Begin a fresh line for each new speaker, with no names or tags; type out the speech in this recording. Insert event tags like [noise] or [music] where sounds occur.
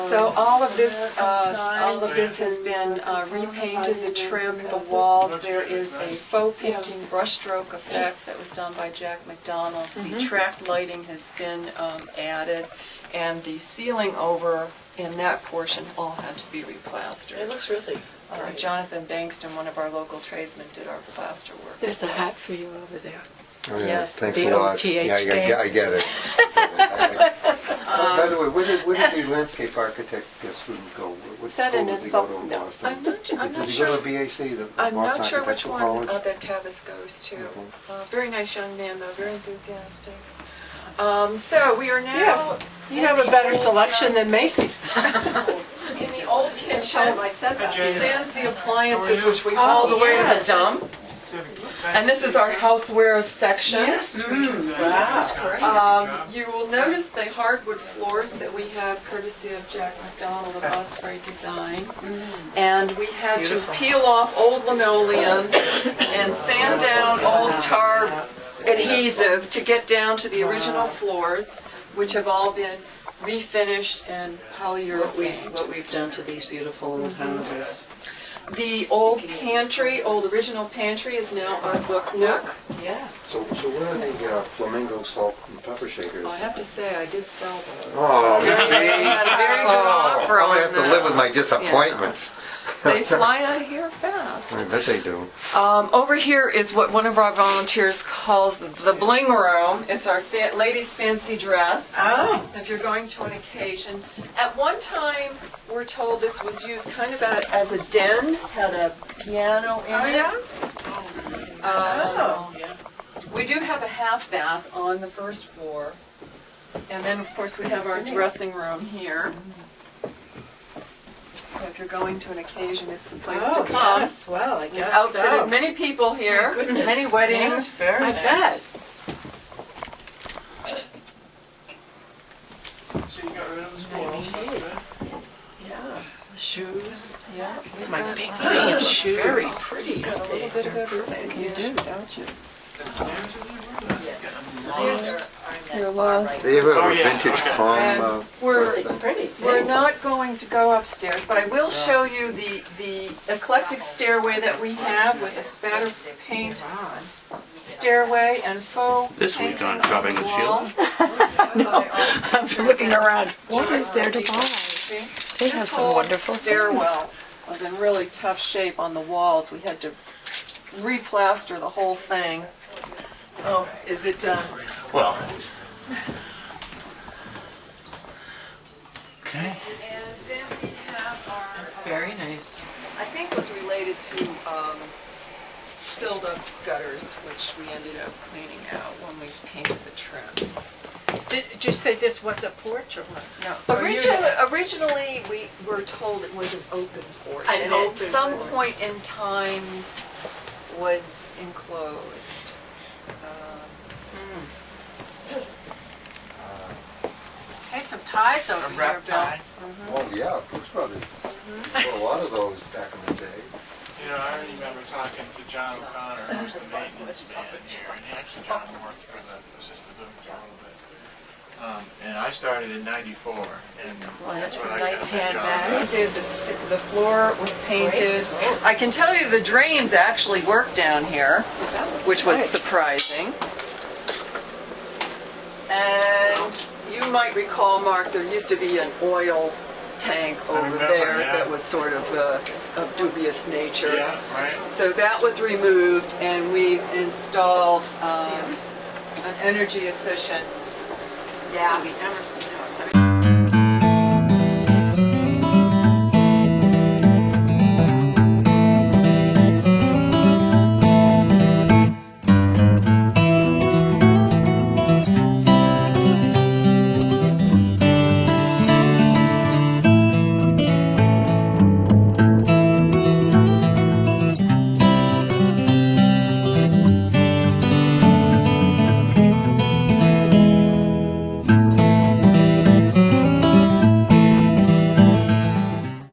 So all of this, uh, all of this has been uh, repainted, the trim, the walls. There is a faux painting brushstroke effect that was done by Jack McDonald. The track lighting has been um, added, and the ceiling over in that portion all had to be
It
replastered.
looks really
Uh,
great.
Jonathan Bankston, one of our local tradesmen, did our plaster work.
There's a hat for you over there.
Oh, yeah,
Yes.
Thanks
The
a lot.
OTH
Yeah, I get-
thing.
I get it.
[laughs]
Oh, By the way, where did, where did the landscape architect uh, student go? What
Um, Is that an
school does he go to in
insult? No,
Boston?
I'm not su- I'm not
Does he go
sure.
to BAC, the
I'm
Boston
not sure which
Architectural
one uh,
College?
that Tavis goes to.
Mhm.
Mm-hmm.
Uh, Very nice young man, though, very enthusiastic. Um, So we are
You
now
have, you have a better selection than Macy's.
in the old kitchen.
I said
Jane.
Sans the appliances,
How are
which we hauled
Oh,
away to the
yes.
dump. And this is our housewares section. Mm-hmm.
Yes, we
Wow.
do. Mm, This is great.
Um, You will notice the hardwood floors that we have courtesy of Jack McDonald of Osprey Design. And we had to
Beautiful.
peel off old linoleum and sand down old tar adhesive to get down to the original floors, which have all been refinished and
What we've,
polyurethane.
what we've done to these beautiful old houses.
The old pantry, old original pantry is now our book nook.
Yeah.
So, so where are the uh, flamingo salt and pepper shakers?
Oh, I have to say, I did sell those.
Oh,
I
see?
had a very good
Oh,
offer
I
on
have to
them.
live with my disappointments.
They fly out of here fast.
I bet they do.
Um, over here is what one of our volunteers calls the bling room. It's our fa- ladies' fancy dress.
Oh.
So if you're going to an occasion, at one time we're told this was used kind of a, as a den, had a piano
Oh,
in it. Um, we do have a half bath on the first floor, and then of course we have our dressing room here. So if you're going to an occasion, it's the place to
Oh,
come.
yes, well, I
We've
guess
Oh,
outfitted
so.
many people here,
goodness.
many weddings.
very
I bet.
So you got rid of the squirrels, huh?
Yeah. Shoes.
Yeah, we've
My
got-
big fan shoes.
very
pretty.
got a little bit of everything. You do, don't you?
And stairs in there, we're not getting them.
You're lost.
They have
Oh,
a
yeah.
vintage palm, uh,
And we're,
press thing.
Pretty.
We're not going to go upstairs, but I will show you the, the eclectic stairway that we have with a spatter paint stairway and faux
This week
painting
on Dropping the
on
Shield.
[laughs] the wall.
I'm looking around. What is there to buy? They have
This
some
whole
wonderful things.
Stairwell was in really tough shape on the walls. We had to replaster the whole thing. Oh, is it done?
Well. Okay.
And then we have our.
Very nice.
I think was related to um, filled up gutters, which we ended up cleaning out when we painted the trim.
Did did you say this was a porch or what? No. Or you-
Originally, originally, we were told it was an open porch.
An
And at
open
some
porch.
point in time was enclosed. Um,
hmm. Hey, some ties over
A
here,
wrap
Bill.
tie.
Oh, yeah, Brooks Brothers.
Mm-hmm.
A lot of those back in the day.
You know, I remember talking to John O'Connor, who's the maintenance man here, and actually John worked for the assisted living for a little bit. Um, and I started in ninety-four, and
Well,
that's
that's
when
a
I
nice
got that
We
job.
handbag.
did, the s- the floor was painted. I can tell you the drains actually work down here, which was surprising. And you might recall, Mark, there used to be an oil tank over
remember,
there
yeah.
that was sort of uh, of dubious nature.
Yeah, right?
So that was removed and we installed um, an energy efficient
Yeah. Emerson House. I mean,